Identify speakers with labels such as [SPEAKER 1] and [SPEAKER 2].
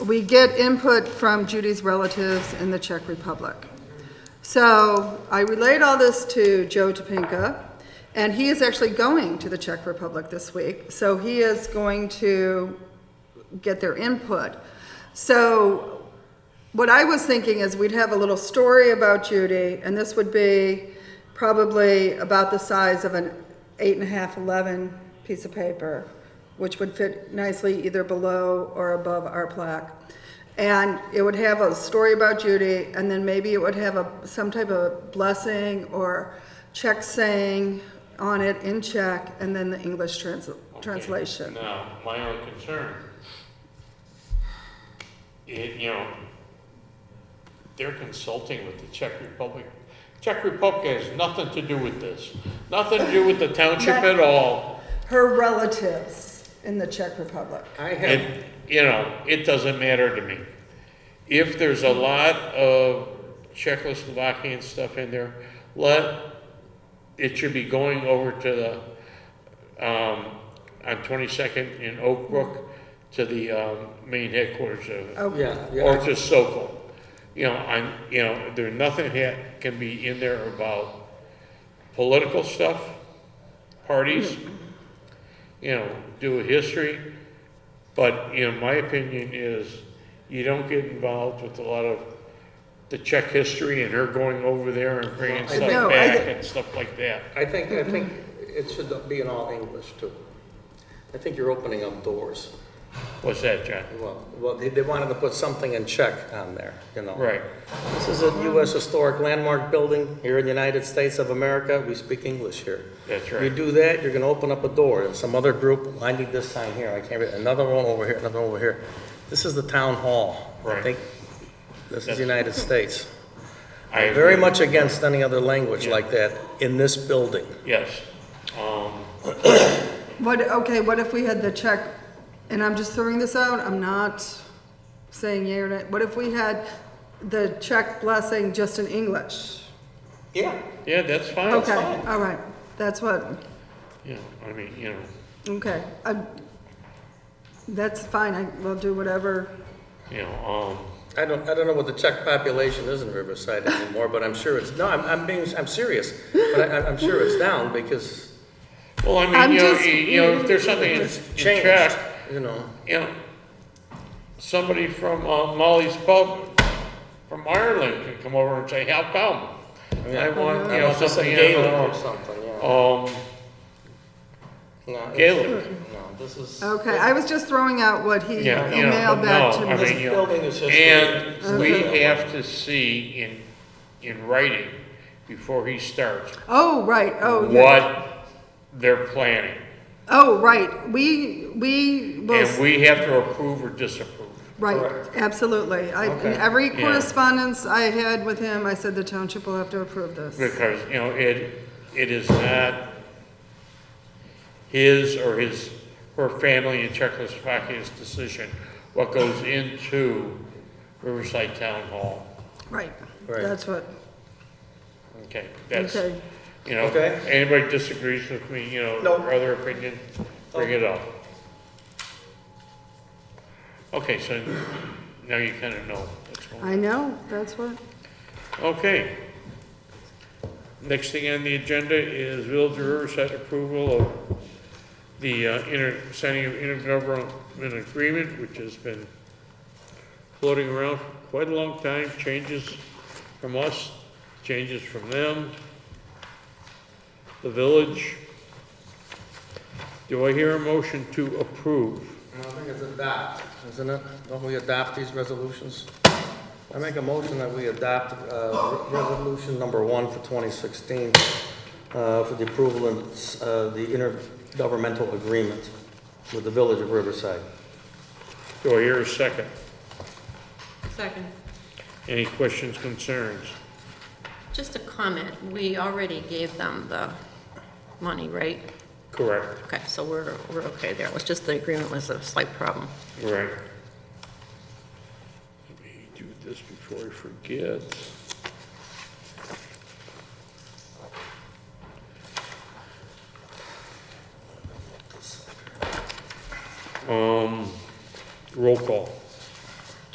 [SPEAKER 1] we get input from Judy's relatives in the Czech Republic. So I relayed all this to Joe Topinka, and he is actually going to the Czech Republic this week. So he is going to get their input. So what I was thinking is we'd have a little story about Judy, and this would be probably about the size of an eight and a half, 11 piece of paper, which would fit nicely either below or above our plaque. And it would have a story about Judy, and then maybe it would have a, some type of blessing or check saying on it in Czech, and then the English trans-
[SPEAKER 2] Okay,
[SPEAKER 1] translation.
[SPEAKER 2] Now, my own concern, it, you know, they're consulting with the Czech Republic. Czech Republic has nothing to do with this, nothing to do with the township at all.
[SPEAKER 1] Her relatives in the Czech Republic.
[SPEAKER 3] I have,
[SPEAKER 2] And, you know, it doesn't matter to me. If there's a lot of Czechoslovakian stuff in there, let, it should be going over to the, um, on twenty-second in Oak Brook to the, um, main headquarters of,
[SPEAKER 1] Okay.
[SPEAKER 3] yeah,
[SPEAKER 2] or
[SPEAKER 3] yeah,
[SPEAKER 2] to Sokol. You know, I'm, you know, there, nothing ha can be in there about political stuff, parties, you know, do a history. But, you know, my opinion is you don't get involved with a lot of the Czech history and her going over there and bringing
[SPEAKER 3] I
[SPEAKER 2] stuff
[SPEAKER 1] No, I
[SPEAKER 2] back
[SPEAKER 1] thi-
[SPEAKER 2] and stuff like that.
[SPEAKER 3] I think, I think it should be in all English too. I think you're opening up doors.
[SPEAKER 2] What's that, John?
[SPEAKER 3] Well, well, they, they wanted to put something in check on there, you know?
[SPEAKER 2] Right.
[SPEAKER 3] This is a US historic landmark building here in the United States of America. We speak English here.
[SPEAKER 2] That's
[SPEAKER 3] You
[SPEAKER 2] right.
[SPEAKER 3] do that, you're gonna open up a door, and some other group, I need this sign here, I can't read, another one over here, another one over here. This is the town hall. I
[SPEAKER 2] Right.
[SPEAKER 3] think This is the United States.
[SPEAKER 2] I
[SPEAKER 3] I'm very
[SPEAKER 2] agree.
[SPEAKER 3] much against any other language like that in this building.
[SPEAKER 2] Yes. Um,
[SPEAKER 1] What, okay, what if we had the check, and I'm just throwing this out, I'm not saying yea or nay, what if we had the check blessing just in English?
[SPEAKER 3] Yeah.
[SPEAKER 2] yeah, that's fine.
[SPEAKER 1] Okay,
[SPEAKER 3] fine.
[SPEAKER 1] all right, that's what,
[SPEAKER 2] You know, I mean, you know,
[SPEAKER 1] okay, I, that's fine, I will do whatever,
[SPEAKER 2] you know, um,
[SPEAKER 3] I don't, I don't know what the Czech population is in Riverside anymore, but I'm sure it's, no, I'm, I'm being, I'm serious. But I, I'm sure it's down because
[SPEAKER 2] Well, I mean,
[SPEAKER 1] I'm
[SPEAKER 2] you, know,
[SPEAKER 1] just-
[SPEAKER 2] you, you know, if there's something in, in
[SPEAKER 3] it's changed,
[SPEAKER 2] check,
[SPEAKER 3] you know?
[SPEAKER 2] you know, somebody from uh, Molly's Pub from Ireland could come over and say, "How come?" I want you know
[SPEAKER 3] Unless it's in
[SPEAKER 2] something in,
[SPEAKER 3] Gaelic or
[SPEAKER 2] uh,
[SPEAKER 3] something, yeah.
[SPEAKER 2] um,
[SPEAKER 3] No, it's-
[SPEAKER 2] Gaelic.
[SPEAKER 3] No, this is.
[SPEAKER 1] okay, I was just throwing out what he
[SPEAKER 2] Yeah, you know,
[SPEAKER 1] emailed
[SPEAKER 2] but
[SPEAKER 1] back to
[SPEAKER 2] no, I
[SPEAKER 1] me.
[SPEAKER 2] mean,
[SPEAKER 3] This
[SPEAKER 2] you know,
[SPEAKER 3] building is history.
[SPEAKER 2] and we
[SPEAKER 1] Okay.
[SPEAKER 2] have to see in in writing before he starts
[SPEAKER 1] Oh, right, oh, yeah.
[SPEAKER 2] what they're planning,
[SPEAKER 1] Oh, right, we, we will
[SPEAKER 2] and we have to approve or disapprove.
[SPEAKER 1] Right, absolutely. I, in
[SPEAKER 3] Okay.
[SPEAKER 1] every
[SPEAKER 2] Yeah.
[SPEAKER 1] correspondence I had with him, I said the township will have to approve this.
[SPEAKER 2] because, you know, it, it is not his or his, her family in Czechoslovakia's decision what goes into Riverside Town Hall.
[SPEAKER 1] Right,
[SPEAKER 3] Right.
[SPEAKER 1] that's what,
[SPEAKER 2] Okay, that's,
[SPEAKER 1] okay.
[SPEAKER 2] you know,
[SPEAKER 3] Okay.
[SPEAKER 2] anybody disagrees with me, you know,
[SPEAKER 3] No.
[SPEAKER 2] or other opinion, bring it up. Okay, so now you kind of know what's going on.
[SPEAKER 1] I know, that's what,
[SPEAKER 2] Okay. Next thing on the agenda is Village of Riverside approval of the uh, inter, signing of intergovernmental agreement, which has been floating around for quite a long time, changes from us, changes from them, the village. Do I hear a motion to approve?
[SPEAKER 3] I think it's adopt, isn't it? Don't we adopt these resolutions? I make a motion that we adopt uh, re- resolution number one for 2016 uh, for the approval of uh, the intergovernmental agreement with the Village of Riverside.
[SPEAKER 2] Do I hear a second?
[SPEAKER 4] Second.
[SPEAKER 2] Any questions, concerns?
[SPEAKER 4] Just a comment, we already gave them the money, right?
[SPEAKER 2] Correct,
[SPEAKER 4] Okay, so we're, we're okay there, it was just the agreement was a slight problem.
[SPEAKER 2] right. Let me do this before I forget. Um,